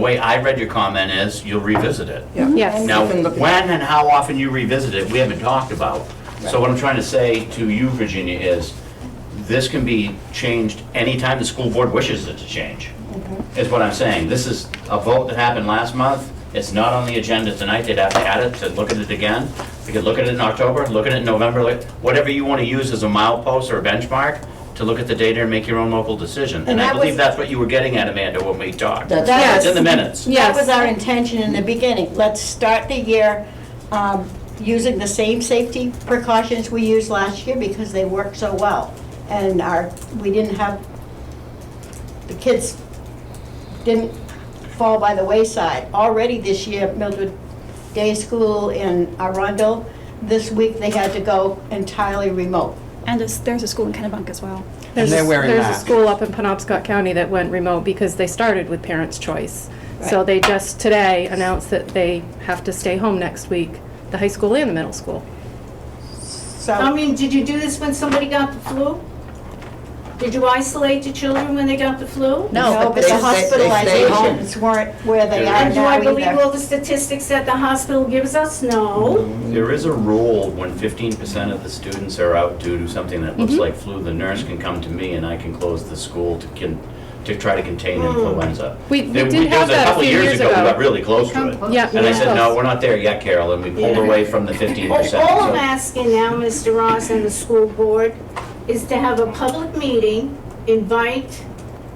The way I read your comment is, you'll revisit it. Yes. Now, You can look- when and how often you revisit it, we haven't talked about. So what I'm trying to say to you, Virginia, is this can be changed anytime the school board wishes it to change, is what I'm saying. This is a vote that happened last month. It's not on the agenda tonight. They'd have to add it to look at it again. We could look at it in October, look at it in November, like, whatever you want to use as a milepost or a benchmark to look at the data and make your own local decision. And I that believe was- that's what you were getting at, Amanda, when we talked. That's Yes. It's in the minutes. Yes. That was our intention in the beginning. Let's start the year um, using the same safety precautions we used last year because they worked so well. And our, we didn't have, the kids didn't fall by the wayside. Already this year, Mildred Day School in Arundel, this week they had to go entirely remote. And there's, there's a school in Kennebunk as well. There's, they're a- wearing there's a masks. school up in Penobscot County that went remote because they started with parents' choice. So Right. they just today announced that they have to stay home next week, the high school and the middle school. I So, mean, did you do this when somebody got the flu? Did you isolate the children when they got the flu? no, but they the stay- they stay home. hospitalizations weren't where they are And do I now believe either. all the statistics that the hospital gives us? No. There is a rule when fifteen percent of the students are out due to something that looks like flu, the nurse can come to me and I can close the school to can, to try to contain influenza. We- we There- did there was have that a couple few years We ago. got really close to it. Yeah. And I said, no, Close. we're not there yet, Carol, and we pulled Yeah. away from the fifteen All percent. all I'm asking now, Mr. Ross and the school board, is to have a public meeting, invite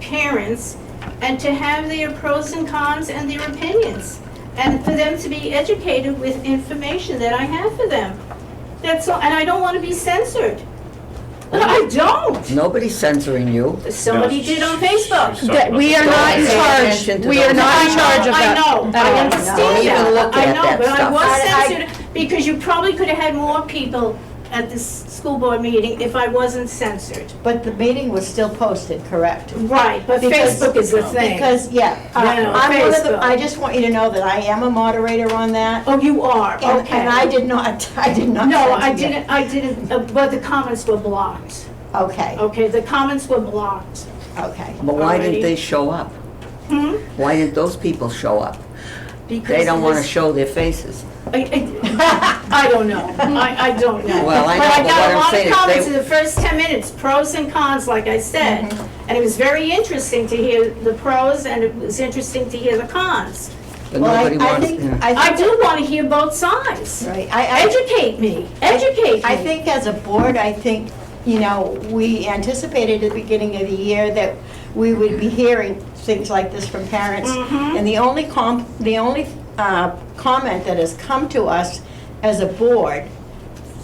parents, and to have their pros and cons and their opinions, and for them to be educated with information that I have for them. That's all, and I don't want to be censored. I don't. Nobody's censoring you. Somebody did on Facebook. That we are not in Pay attention charge, to we are those. not in charge of that. I know, at all. I understand Don't even look that. I at that know, but I stuff. was I- censored because you probably could have had more people at this school board meeting if I wasn't censored. But the meeting was still posted, correct? Right, but Because- Facebook is the thing. Because, yeah, Yeah, I'm one of the, Facebook. I just want you to know that I am a moderator on that. Oh, you are, and- okay. And I did not, I did not. No, I censor you. didn't, I didn't, uh, but the comments were blocked. Okay, Okay, the comments were blocked. okay. But why Alrighty. didn't they show up? Hmm? Why didn't those people show up? They don't want to show their faces. I I don't know. I, I don't know. Well, I know, but what I'm saying is got a lot of they- comments in the first 10 minutes, pros and cons, like I said. Mm-hmm. And it was very interesting to hear the pros, and it was interesting to hear the cons. But Well, I- nobody I wants, think- yeah. I I think, do want to hear both sides. right, I, I, Educate me, educate me. I think as a board, I think, you know, we anticipated at the beginning of the year that we would be hearing things like this from parents. And the only com, the only uh, comment that has come to us as a board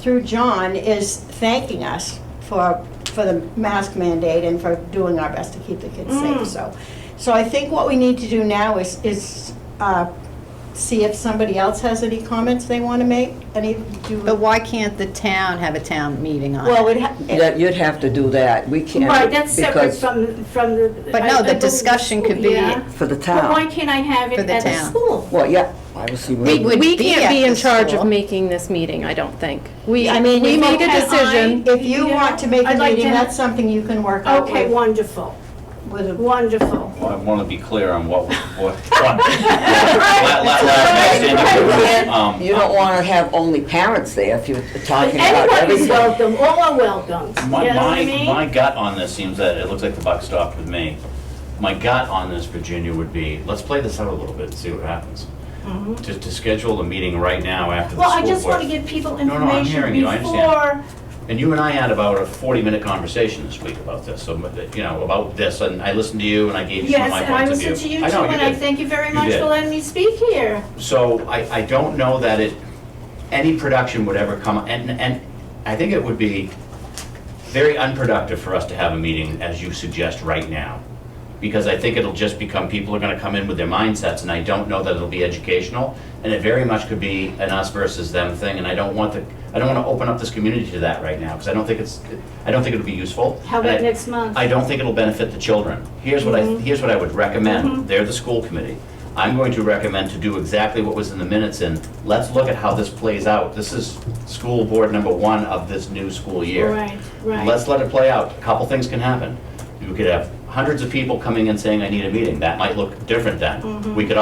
through John is thanking us for, for the mask mandate and for doing our best to keep the kids safe, so. So I think what we need to do now is, is uh, see if somebody else has any comments they want to make, any, do. But why can't the town have a town meeting on it? Well, it ha- That- you'd have to do that. We can't. Right, that's separate because from, from the. But I- no, I the believe discussion could school, be- yeah. For the But why town. can't I have For it the at the town. school? Well, yeah, I would see. where- We would We be can't at be the in charge of school. making this meeting, I don't think. We, I mean, we if made a okay, decision. If you Yeah. want to make a I'd like meeting, to- that's something you can work out Okay, with, wonderful, with a wonderful. I want to be clear on what, what, what. la- la- la- la- um, You don't want to have only parents there if you're talking about Anyone is everything. welcome, all are welcome, you know My, what I my, mean? my gut on this seems that it looks like the buck stopped with me. My gut on this, Virginia, would be, let's play this out a little bit and see what happens. To, to schedule a meeting right now after the Mm-hmm. Well, I school just want to board- give people no, I'm information hearing you, I understand. before, And you and I had about a 40-minute conversation this week about this, so, you know, about this, and I listened to you and I gave you some of yes, my and I points of view. listen to you too, know, and I did. thank you very You much did. for letting me speak here. So I, I don't know that it, any production would ever come, and, and I think it would be very unproductive for us to have a meeting, as you suggest, right now. Because I think it'll just become, people are gonna come in with their mindsets, and I don't know that it'll be educational. And it very much could be an us versus them thing, and I don't want the, I don't wanna open up this community to that right now, because I don't think it's, I don't think it'll be useful. How about And I- next month? I don't think it'll benefit the children. Here's what I, Mm-hmm. here's what I would recommend. They're the school committee. I'm going to recommend to do exactly what was in the minutes and let's look at how this plays out. This is school board number one of this new school year. Right, right. Let's let it play out. A couple things can happen. You could have Mm-hmm. hundreds of people coming and saying, I need a meeting, that might look different then. We could